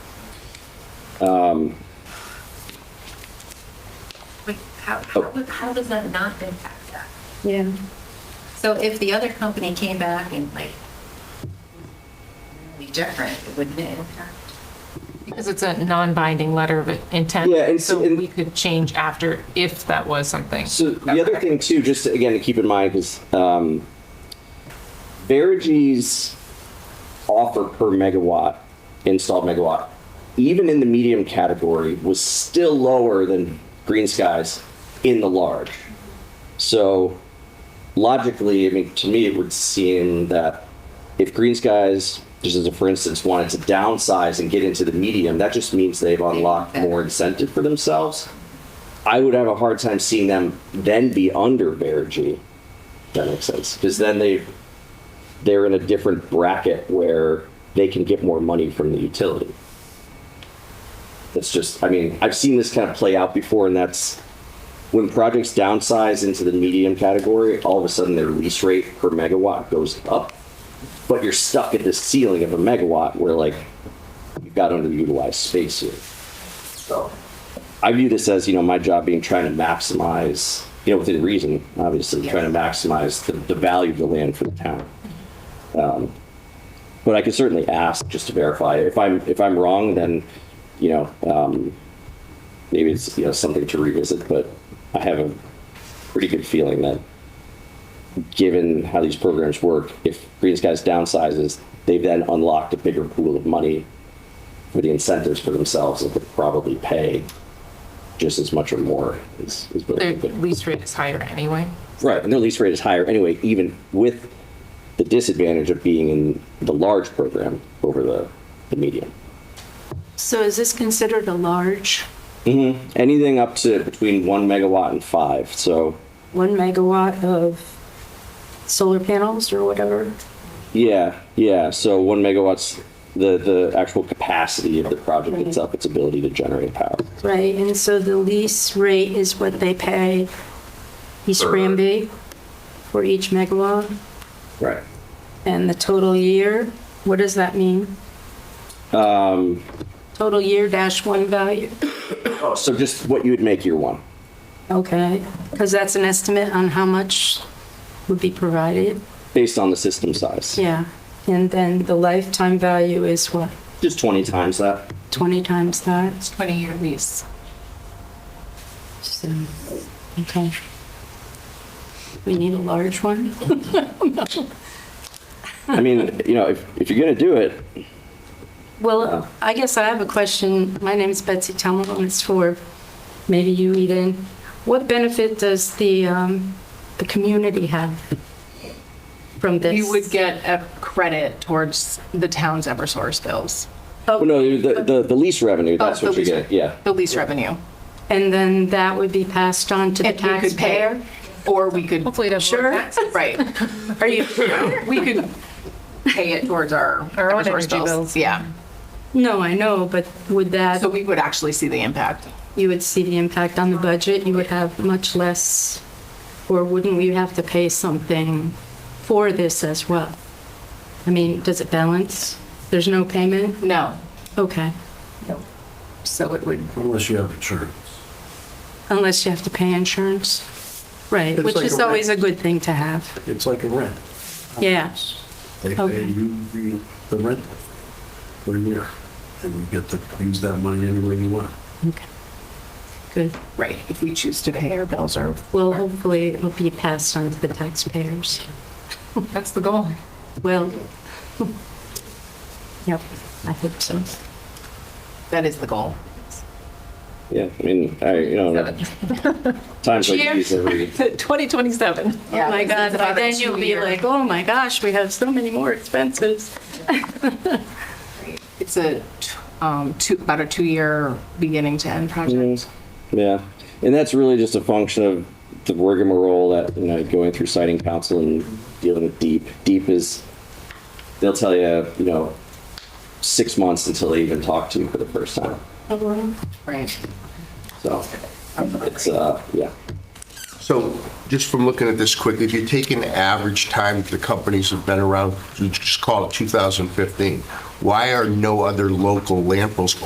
Wait, How, how, how does that not impact that? Yeah. So if the other company came back and like, be different, it wouldn't impact. Because it's a non-binding letter of intent. Yeah, and- So and- we could change after if that was something. So the other thing too, just to, again to keep in mind, because um, Verigy's offer per megawatt installed megawatt, even in the medium category, was still lower than Green Skies in the large. So logically, I mean, to me, it would seem that if Green Skies, just as a for instance, wanted to downsize and get into the medium, that just means they've unlocked more incentive for themselves. I would have a hard time seeing them then be under Bear G. if That makes sense because then they they're in a different bracket where they can get more money from the utility. That's just I mean I've seen this kind of play out before, and that's when projects downsize into the medium category. All of a sudden, their lease rate per megawatt goes up, but you're stuck at the ceiling of a megawatt where like you've got underutilized space here. So. I view this as, you know, my job being trying to maximize, you know, within reason, obviously, trying to maximize the, the value of the land for the town. Um, But I could certainly ask just to verify. If I'm, if I'm wrong, then, you know, um, maybe it's, you know, something to revisit, but I have a pretty good feeling that given how these programs work, if Green Skies downsizes, they've then unlocked a bigger pool of money for the incentives for themselves that could probably pay just as much or more is, is what Their they could. lease rate is higher anyway. Right, and their lease rate is higher anyway, even with the disadvantage of being in the large program over the, the medium. So is this considered a large, Anything up to between one megawatt and five, so, one megawatt of solar panels or whatever? yeah, yeah, so one megawatt's the, the actual capacity of the project Right. itself, its ability to generate power. Right, and so the lease rate is what they pay East Granby for each megawatt? Right. And the total year, what does that mean? Um, Total year dash one value? oh, so just what you would make year one. Okay, because that's an estimate on how much would be provided? based on the system size. Yeah, and then the lifetime value is what, Just 20 times that. 20 times that? It's 20-year lease. So, okay. We need a large one? I mean, you know, if, if you're going to do it, Well, I guess I have a question. My name is Betsy Tomlin. It's for, maybe you, Eden. What benefit does the, um, the community have from this? You would get a credit towards the town's Eversource bills, well, no, the, the, the lease revenue, that's the what you lease get. Yeah. the lease revenue. And then that would be passed on to the If we could pay, taxpayer? Or we could, Hopefully it doesn't. Sure. right, Are you, we could pay it towards our Our own Eversource energy bills. bills. Yeah, no, I know, but would that, so we would actually see the impact. you would see the impact on the budget? You would have much less, or wouldn't we have to pay something for this as well? I mean, does it balance? There's no payment? No, Okay. so it would, Unless you have insurance. Unless you have to pay insurance. Right, It's which like is a always a rent. good thing to have. It's like a rent. Yeah. They Okay. pay you the- the rent for a year, and you get to use that money any way you want. Okay. Good. right, if we choose to pay our bills or, Well, hopefully it'll be passed on to the taxpayers. That's the goal. Well, yep, I hope so. that is the goal. Yeah. I mean, I, you know, times like these, every, 2027. Oh my God, by about a then you'll be two-year- like, oh my gosh, we have so many more expenses. It's a, t- um, two, about a two-year beginning to end project. yeah. And that's really just a function of the rigmarole that, you know, going through siting council and dealing with deep. Deep is, they'll tell you, you know, six months until they even talk to you for the first time. Right. So it's, uh, yeah. So just from looking at this quick, if you take an average time the companies have been around, you just call it 2015, why are no other local landfills